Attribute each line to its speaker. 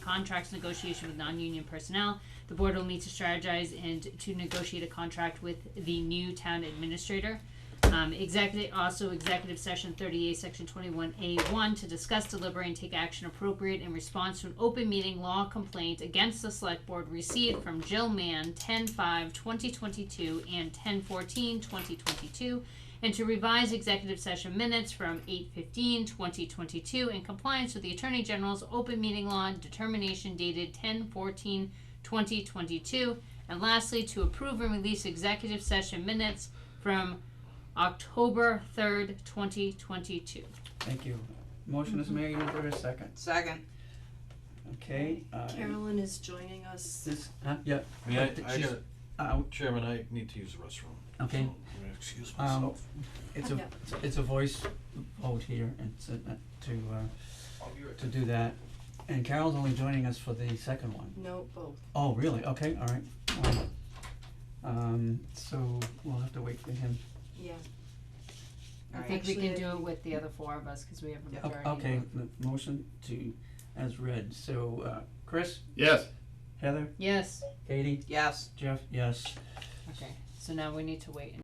Speaker 1: contracts negotiation with non-union personnel. The board will meet to strategize and to negotiate a contract with the new town administrator. Um, executive, also executive session thirty-eight, section twenty-one A one, to discuss, deliberate, and take action appropriate in response to an open meeting law complaint against the select board received from Jill Mann, 10-5-2022 and 10-14-2022, and to revise executive session minutes from 8-15-2022 in compliance with the Attorney General's open meeting law determination dated 10-14-2022. 2022. And lastly, to approve and release executive session minutes from October 3rd, 2022.
Speaker 2: Thank you. Motion is made, is there a second?
Speaker 3: Second.
Speaker 2: Okay, uh,
Speaker 4: Carolyn is joining us.
Speaker 2: this, huh, yeah,
Speaker 5: May I,
Speaker 2: But
Speaker 5: I
Speaker 2: she's-
Speaker 5: gotta-
Speaker 2: uh,
Speaker 5: Chairman, I need to use the restroom.
Speaker 2: okay,
Speaker 5: So, I'm gonna Excuse
Speaker 2: um,
Speaker 5: myself.
Speaker 2: it's a,
Speaker 4: Yeah.
Speaker 2: it's a voice vote here, and so, uh, to, uh, to do that. And Carol's only joining us for the second one.
Speaker 4: No, both.
Speaker 2: Oh, really? Okay, all right. Well, Um, so we'll have to wait for him.
Speaker 4: Yeah.
Speaker 1: I think we can
Speaker 4: Actually,
Speaker 1: do it with the other four of us because we have a
Speaker 2: O-
Speaker 1: majority.
Speaker 2: Okay, the motion to, as read, so, uh, Chris,
Speaker 6: Yes.
Speaker 2: Heather,
Speaker 1: Yes,
Speaker 2: Katie,
Speaker 3: Yes.
Speaker 2: Jeff, yes.
Speaker 1: okay, so now we need to wait